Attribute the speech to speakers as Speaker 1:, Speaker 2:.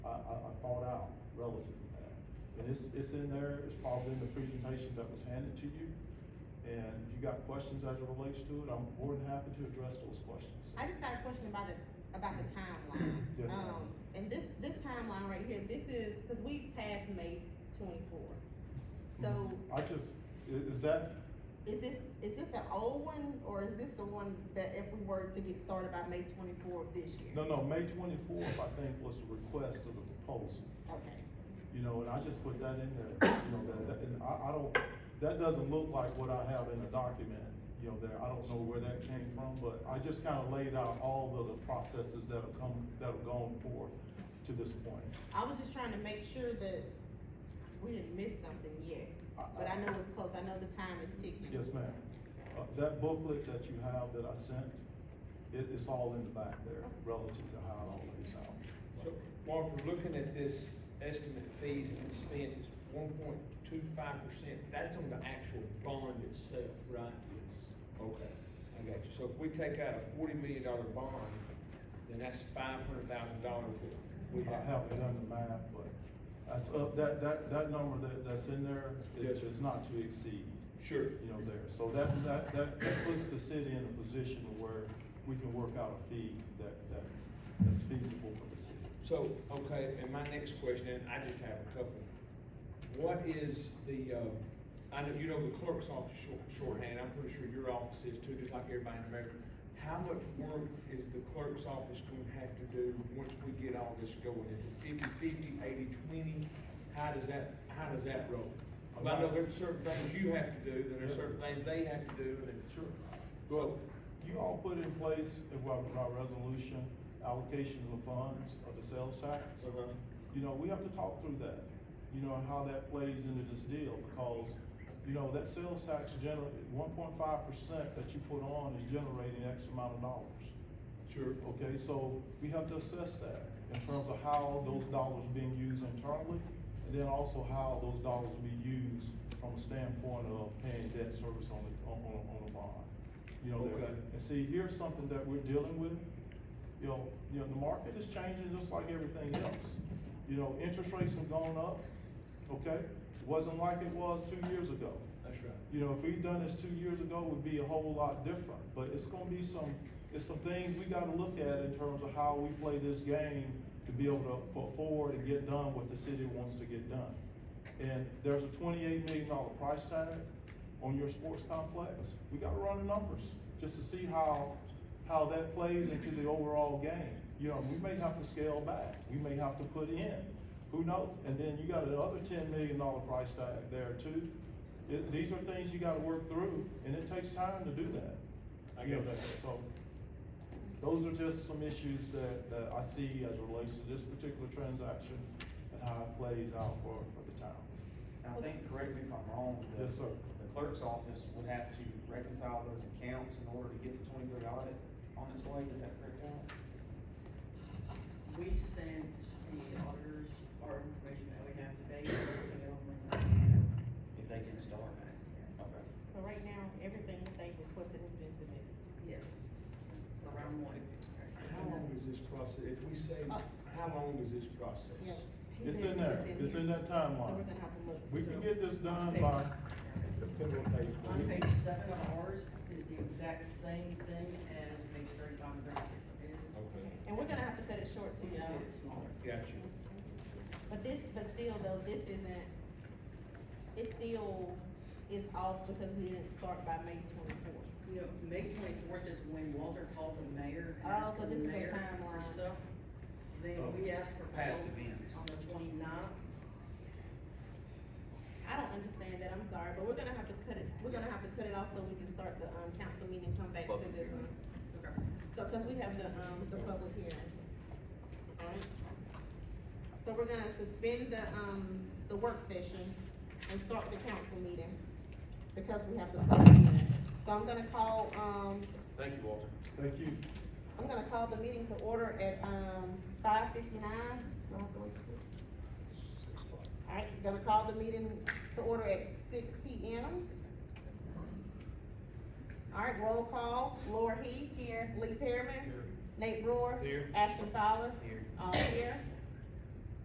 Speaker 1: it's, it's in there, it's probably in the presentation that was handed to you. And if you got questions as it relates to it, I'm more than happy to address those questions.
Speaker 2: I just got a question about the, about the timeline.
Speaker 1: Yes, ma'am.
Speaker 2: Um, and this, this timeline right here, this is, cause we passed May twenty-four. So,
Speaker 1: I just, i- is that,
Speaker 2: is this, is this an old one, or is this the one that if we were to get started by May twenty-four of this year?
Speaker 1: no, no, May twenty-fourth, I think, was the request of the proposal.
Speaker 2: Okay,
Speaker 1: You know, and I just put that in there, you know, that, that- and I, I don't, that doesn't look like what I have in the document, you know, there, I don't know where that came from, but I just kinda laid out all of the processes that have come, that have gone forth to this point.
Speaker 2: I was just trying to make sure that we didn't miss something yet,
Speaker 1: I-
Speaker 2: but I know it's close, I know the time is ticking.
Speaker 1: Yes, ma'am. Uh, that booklet that you have that I sent, it, it's all in the back there relative to how it all lays out.
Speaker 3: So, Walter, looking at this estimate of fees and expenses, one point two five percent, that's on the actual bond itself, right? Yes. Okay, I got you. So if we take out a forty million dollar bond, then that's five hundred thousand dollars that we
Speaker 1: I
Speaker 3: have.
Speaker 1: haven't done the math, but that's, up that, that, that number that, that's in there
Speaker 3: Yes,
Speaker 1: is,
Speaker 3: sir.
Speaker 1: is not to exceed,
Speaker 3: Sure.
Speaker 1: you know, there. So that, that, that, that puts the city in a position where we can work out a fee that, that, that's feasible for the city.
Speaker 3: So, okay, and my next question, and I just have a couple. What is the, uh, I know, you know, the clerk's office short, shorthand, I'm pretty sure your office is too, just like everybody in America. How much work is the clerk's office gonna have to do once we get all this going? Is it fifty-fifty, eighty-twenty? How does that, how does that roll? Well, I know there's certain things you have to do, there are certain things they have to do, and.
Speaker 1: Sure.
Speaker 3: So,
Speaker 1: You all put in place, in our, our resolution, allocation of funds of the sales tax.
Speaker 3: Uh-huh.
Speaker 1: You know, we have to talk through that, you know, and how that plays into this deal, because, you know, that sales tax gener, one point five percent that you put on is generating X amount of dollars.
Speaker 3: sure,
Speaker 1: Okay, so we have to assess that in terms of how those dollars are being used internally, and then also how those dollars will be used from a standpoint of paying debt service on the, on, on, on the bond. You know,
Speaker 3: Okay.
Speaker 1: and see, here's something that we're dealing with, you know, you know, the market is changing just like everything else. You know, interest rates have gone up, okay? Wasn't like it was two years ago.
Speaker 3: that's right.
Speaker 1: You know, if we'd done this two years ago, it would be a whole lot different, but it's gonna be some, it's some things we gotta look at in terms of how we play this game to be able to put forward and get done what the city wants to get done. And there's a twenty-eight million dollar price tag on your sports complex. We gotta run the numbers just to see how, how that plays into the overall game. You know, we may have to scale back, we may have to put in, who knows? And then you got another ten million dollar price tag there too. It- These are things you gotta work through, and it takes time to do that.
Speaker 3: I
Speaker 1: You know,
Speaker 3: get that.
Speaker 1: So, those are just some issues that, that I see as it relates to this particular transaction and how it plays out for, for the town.
Speaker 4: And I think, correct me if I'm wrong, the.
Speaker 1: Yes, sir.
Speaker 4: The clerk's office would have to reconcile those accounts in order to get the twenty-three audit on its way, is that correct, Alan?
Speaker 5: We sent the auditors our information that we have today, and they don't bring it up.
Speaker 4: If they can start.
Speaker 5: Yes.
Speaker 4: Okay.
Speaker 2: So right now, everything that they requested has been submitted.
Speaker 5: Yes. Around one.
Speaker 3: How long is this process, if we say, how long is this process?
Speaker 2: Yeah. he
Speaker 1: It's
Speaker 2: said
Speaker 1: in there, it's in that
Speaker 2: So we're
Speaker 1: timeline.
Speaker 2: gonna have to look.
Speaker 1: We
Speaker 2: to-
Speaker 1: can get this done by,
Speaker 3: Depending on page
Speaker 5: On
Speaker 3: one.
Speaker 5: page seven of ours is the exact same thing as page thirty-five and thirty-six of his.
Speaker 3: Okay,
Speaker 2: And we're gonna have to cut it short
Speaker 5: We
Speaker 2: too,
Speaker 5: just did
Speaker 2: y'all.
Speaker 5: it smaller.
Speaker 3: got you.
Speaker 2: But this, but still though, this isn't, it still is off because we didn't start by May twenty-fourth.
Speaker 5: You know, May twenty-fourth is when Walter called the mayor. and
Speaker 2: Oh,
Speaker 5: asked
Speaker 2: so
Speaker 5: the
Speaker 2: this is a
Speaker 5: mayor for
Speaker 2: timeline.
Speaker 5: Stuff. Then
Speaker 1: Oh.
Speaker 5: we asked for.
Speaker 4: Past
Speaker 5: vote
Speaker 4: events.
Speaker 5: On the twenty-ninth,
Speaker 2: I don't understand that, I'm sorry, but we're gonna have to cut it, we're gonna have to cut it off so we can start the, um, council meeting, come back to this one. So, cause we have the, um, the public hearing. Alright? So we're gonna suspend the, um, the work session and start the council meeting, because we have the public hearing. So I'm gonna call, um,
Speaker 3: Thank you, Walter.
Speaker 1: thank you.
Speaker 2: I'm gonna call the meeting to order at, um, five fifty-nine. Alright, gonna call the meeting to order at six P M. Alright, roll call, Laura Heath. Here. Lee Pearman. Nate Brewer.
Speaker 3: Here.
Speaker 2: Ashton Fowler.
Speaker 3: Here.
Speaker 2: All here.